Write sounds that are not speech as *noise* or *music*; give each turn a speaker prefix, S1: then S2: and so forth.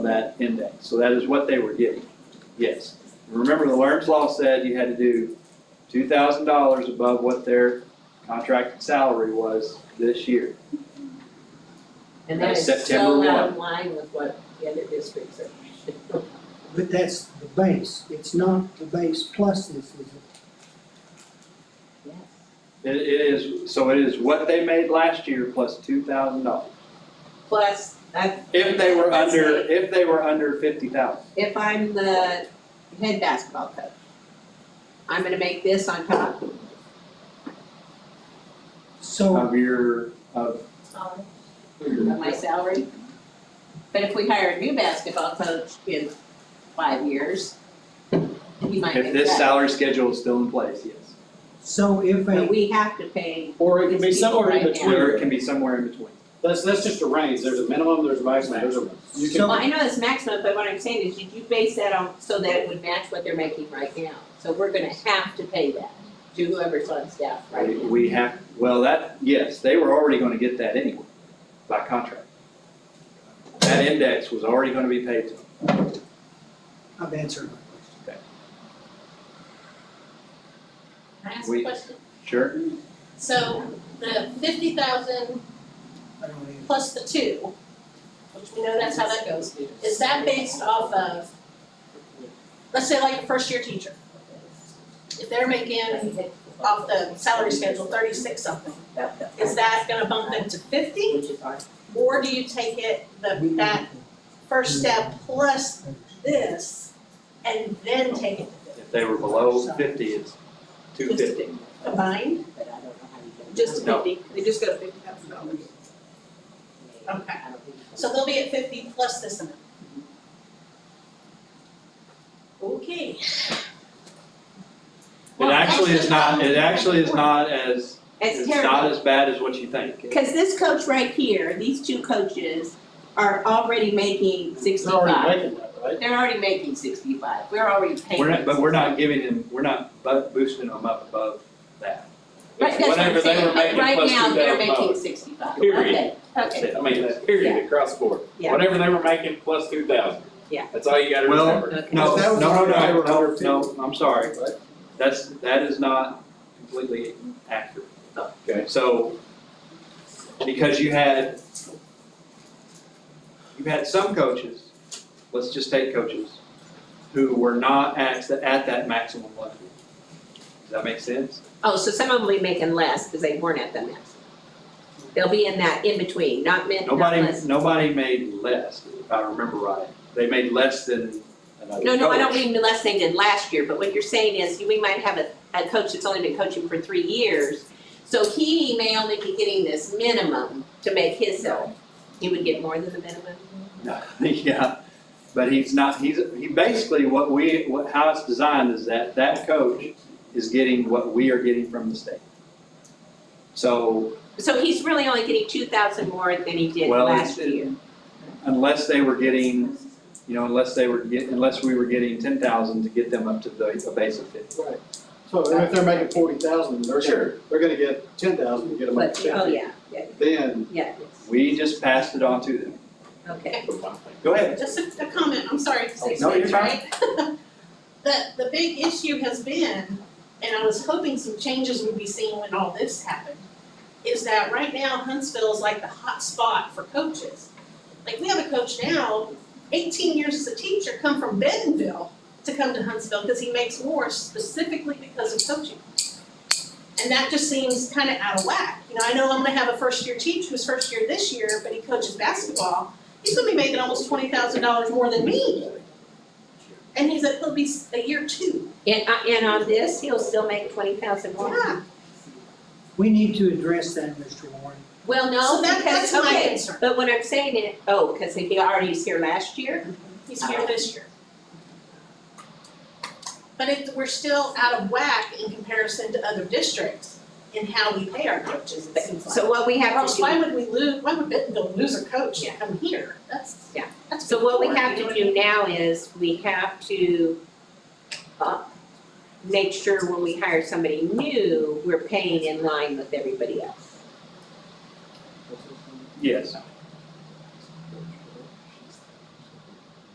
S1: that index. So that is what they were getting, yes. Remember, the Lerms law said you had to do two thousand dollars above what their contracted salary was this year.
S2: And that is
S1: September
S2: so out
S1: one.
S2: of line with what the other districts are.
S3: But that's the base, it's not the base plus this, is it?
S2: Yes.
S1: It, it is, so it is what they made last year plus two thousand dollars.
S2: Plus, I.
S1: If they were
S2: let's
S1: under,
S2: say,
S1: if they were under fifty thousand.
S2: If I'm the head basketball coach, I'm gonna make this on top.
S3: So,
S2: Um,
S1: Of your, of.
S2: of my salary. But if we hire a new basketball coach in five years, he might
S1: If
S2: make
S1: this
S2: that.
S1: salary schedule is still in place, yes.
S3: so if
S2: But
S3: a,
S2: we have to pay,
S4: Or it can be
S2: These people
S4: somewhere in
S2: right now.
S4: between.
S1: Or it can be somewhere in between.
S4: That's, that's just a range, there's a minimum, there's a maximum, there's a. You can,
S3: So-
S2: well, I know it's maximum, but what I'm saying is, did you base that on, so that it would match what they're making right now? So we're gonna have to pay that to whoever's on staff right
S1: We-
S2: now.
S1: We have, well, that, yes, they were already gonna get that anyway, by contract. That index was already gonna be paid to them.
S3: I've answered my question.
S5: Can I ask
S1: We-
S5: a question?
S1: Sure.
S5: So the fifty thousand
S3: I don't even,
S5: plus the two, which we know that's how that goes, is that based off of, let's say like a first year teacher? If they're making off the salary schedule thirty-six something, is that gonna bump them to fifty?
S2: Which is our
S5: Or do you take it, the, that first step plus this, and then take it to
S1: If they were below fifty, it's two fifty.
S5: the combined?
S2: but I don't know how you get.
S5: Just
S1: No.
S5: fifty, they just go to fifty thousand dollars. Okay.
S2: I don't think you can.
S5: So they'll be at fifty plus this amount. Okay.
S1: It actually is not, it actually is not as,
S2: It's
S1: it's not
S2: terrible,
S1: as bad as what you think.
S2: cause this coach right here, these two coaches are already making
S4: it's
S2: sixty-five.
S4: already making that, right?
S2: They're already making sixty-five, we're already paying.
S1: We're not, but we're not giving them, we're not bu- boosting them up above that.
S2: Right,
S1: It's
S2: that's what I'm
S1: whatever they
S2: saying,
S1: were
S2: but
S1: making
S2: right
S1: plus
S2: now, they're
S1: 2,000
S2: making
S1: dollars.
S2: sixty-five, okay,
S6: Period.
S2: okay.
S1: That's it.
S6: I mean, period, across the board.
S2: Yeah.
S6: Whatever they were making plus two thousand.
S2: Yeah.
S6: That's all you gotta
S1: Well,
S6: remember.
S1: No,
S4: That
S1: no,
S4: was
S1: no,
S4: already
S1: no,
S4: over
S1: no,
S4: 150.
S1: no, I'm sorry.
S4: Right.
S1: That's, that is not completely accurate.
S6: Okay.
S1: So, because you had, you had some coaches, let's just take coaches, who were not at, the- at that maximum level. Does that make sense?
S2: Oh, so some of them will be making less, cause they weren't at the max. They'll be in that in-between, not min, not
S1: Nobody,
S2: less.
S1: nobody made less, if I remember right. They made less than another
S2: No, no, I don't
S1: coach.
S2: mean less than than last year, but what you're saying is, we might have a, a coach that's only been coaching for three years, so he may only be getting this minimum to make his salary. He would get more than the minimum?
S1: *laughs* Yeah, but he's not, he's, he basically, what we, what, how it's designed is that that coach is getting what we are getting from the state. So
S2: So he's really only getting two thousand more than he did
S1: Well,
S2: last
S1: it's-
S2: year.
S1: unless they were getting, you know, unless they were get, unless we were getting ten thousand to get them up to the, a base of fifty.
S4: Right. So if they're making forty thousand, they're gonna, they're gonna get ten thousand to get them up
S2: But,
S4: to
S2: oh,
S4: fifty.
S2: yeah, yeah,
S4: Then,
S2: yeah,
S1: We just passed it on to them.
S2: okay.
S1: Go ahead.
S5: Just a, a comment, I'm sorry to say
S1: No, you're
S5: this, right? *laughs* The, the big issue has been, and I was hoping some changes would be seen when all this happened, is that right now Huntsville is like the hot spot for coaches. Like, we have a coach now, eighteen years as a teacher, come from Bentonville to come to Huntsville because he makes more specifically because of coaching. And that just seems kind of out of whack. You know, I know I'm gonna have a first-year teacher who's first year this year, but he coaches basketball he's gonna be making almost twenty thousand dollars more than me. And he's at, he'll be s- a year two,
S2: And, uh, and on this, he'll still make twenty thousand more?
S5: yeah,
S3: we need to address that, Mr. Warren.
S2: Well,
S5: so
S2: no,
S5: that,
S2: because,
S5: that's my
S2: okay,
S5: concern,
S2: but what I'm saying is, oh, cause he already was here last year?
S5: he's here this year. But it, we're still out of whack in comparison to other districts in how we pay our coaches, it seems like.
S2: So what we have to
S5: Else
S2: do.
S5: why would we lose, why would Bentonville lose a coach and come here? That's,
S2: Yeah.
S5: that's.
S2: So what we
S5: poor,
S2: have
S5: you know
S2: to
S5: what I mean?
S2: do now is we have to uh, make sure when we hire somebody new, we're paying in line with everybody else.
S1: Yes,